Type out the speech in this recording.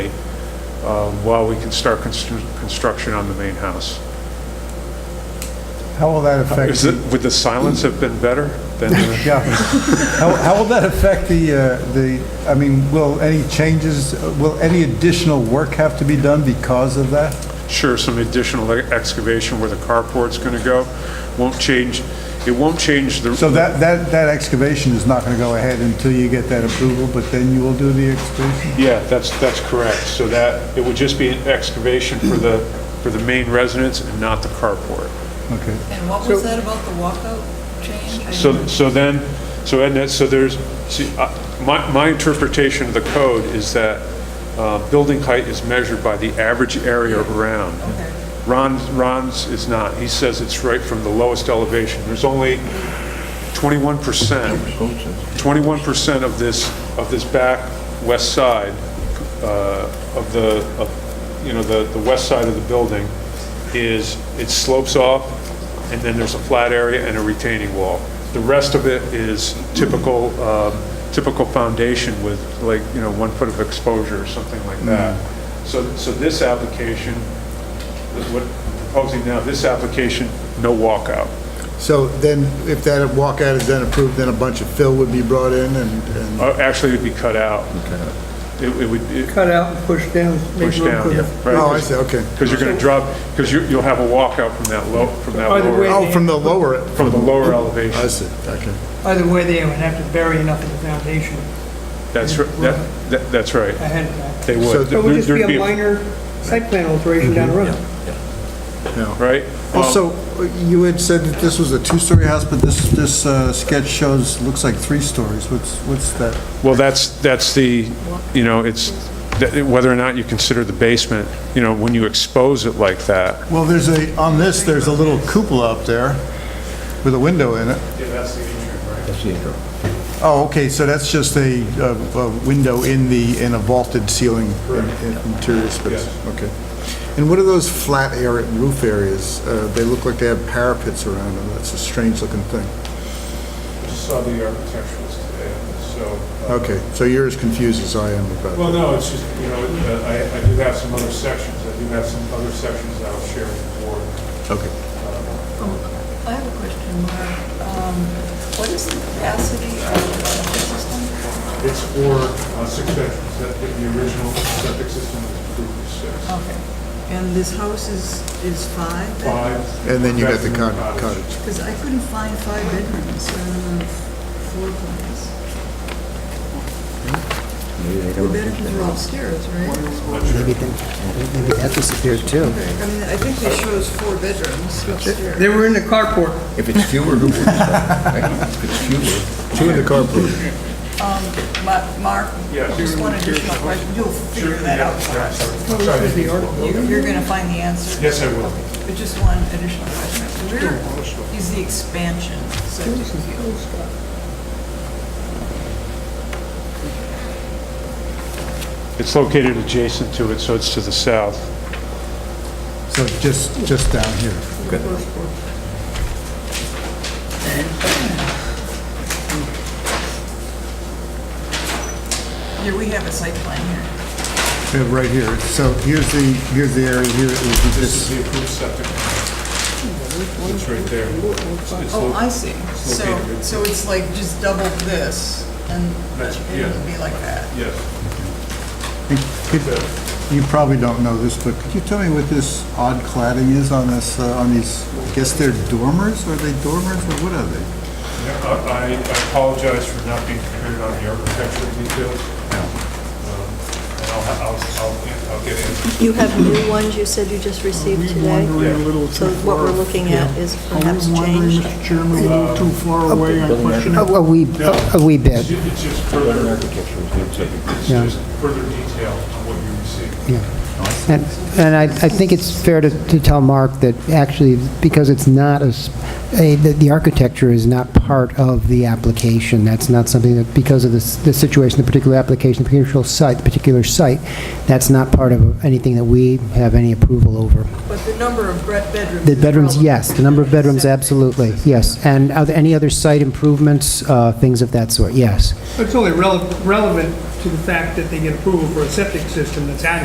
um, while we can start constru- construction on the main house. How will that affect? Is it, would the silence have been better than? the- Yeah. How, how will that affect the, uh, the, I mean, will any changes, will any additional work have to be done because of that? Sure, some additional e-, excavation where the carport's going to go. Won't change, it won't change the. So that, that, that excavation is not going to go ahead until you get that approval, but then you will do the excavation? Yeah, that's, that's correct. So that, it would just be an excavation for the, for the main residence and not the carport. Okay. And what was that about the walkout change? I So, didn't- so then, so Ed, so there's, see, I- my, my interpretation of the code is that uh, building height is measured by the average area around. Ron's, Ron's is not. He says it's right from the lowest elevation. There's only 21%, 21% of this, of this back west side uh, of the, of, you know, the, the west side of the building is, it slopes off, and then there's a flat area and a retaining wall. The rest of it is typical, um, typical foundation with like, you know, one foot of exposure or something like that. So, so this application, what I'm proposing now, this application, no walkout. So then, if that walkout is then approved, then a bunch of fill would be brought in and, and Uh, Actually, it'd be cut out. It it would, it- cut out and push down. make push room down. for the- right? Oh, I see, okay. Because you're going to drop, because you, you'll have a walkout from that low, from that Either way. lower, Oh, from the lower, from the lower I elevation. see, okay. Either way, they would have to bury enough in the foundation That's, ri- that, that- that's right. ahead of time. They So would. So it would just There'd Mm-hmm. be a minor site plan alteration down the road. Right? Um, Also, you had said that this was a two-story house, but this, this uh, sketch shows, looks like three stories. What's, what's that? Well, that's, that's the, you know, it's, that- whether or not you consider the basement, you know, when you expose it like that. Well, there's a, on this, there's a little cupola up there with a window in it. Yeah, that's the issue, right? Oh, okay, so that's just a, a- a window in the, in a vaulted ceiling in- in- interior space. Okay. And what are those flat area, roof areas? Uh, They look like they have parapets around them, that's a strange-looking thing. Saw the architecturals today, so. uh, Okay, so you're as confused as I am about Well, that. no, it's just, you know, uh, I, I do have some other sections, I do have some other sections that I'll share with the board. Okay. I have a question, Mark. Um, What is the capacity of the septic system? It's for uh, six bedrooms, that, the original septic system was approved for six. Okay. And this house is, is five? Five. And then you got the bedroom cot- cottage. Because I couldn't find five bedrooms uh, on the floor plans. The bedrooms are upstairs, right? Maybe then- maybe that disappeared too. I mean, I think it shows four bedrooms upstairs. They were in the carport. If it's fewer, who would it be? Right? If it's fewer, Two in the carport. Ma- Mark, Yes. just one additional question, you'll figure that out for us. Sorry. You- You're going to find the answer. Yes, I will. But just one additional question. Where is the expansion subject to? It's located adjacent to it, so it's to the south. So just, just down here. Yeah, we have a site plan here. Yeah, Uh, Right here. So here's the, here's the area here. It would be This this. is the approved septic. It's right there. It's- it's Oh, lo- I see. It's So, located. so it's like just double this, and That's- yeah. it'll be like that. Yes. Could- You probably don't know this, but could you tell me what this odd cladding is on this, uh, on these, I guess they're dormers? Are they dormers or what are they? Yeah, I I apologize for not being prepared on the architectural details. Um, And I'll, I'll, I'll- I'll get in. You have new ones you said you just received today? So what we're looking at is perhaps changed? Chairman, a little too far away, I question A a wee, a wee bit, It's just further, it's Yeah. just further detail on what you received. yeah. And and I, I think it's fair to, to tell Mark that actually, because it's not a s- a, that the architecture is not part of the application, that's not something that, because of the, s- the situation, the particular application, the particular site, the particular site, that's not part of anything that we have any approval over. But the number of bre- bedrooms. The is bedrooms, relevant. yes, the number of bedrooms, Septic. absolutely, yes. And are there any other site improvements, uh, things of that sort, yes. It's only rele- relevant to the fact that they get approval for a septic system that's adequate.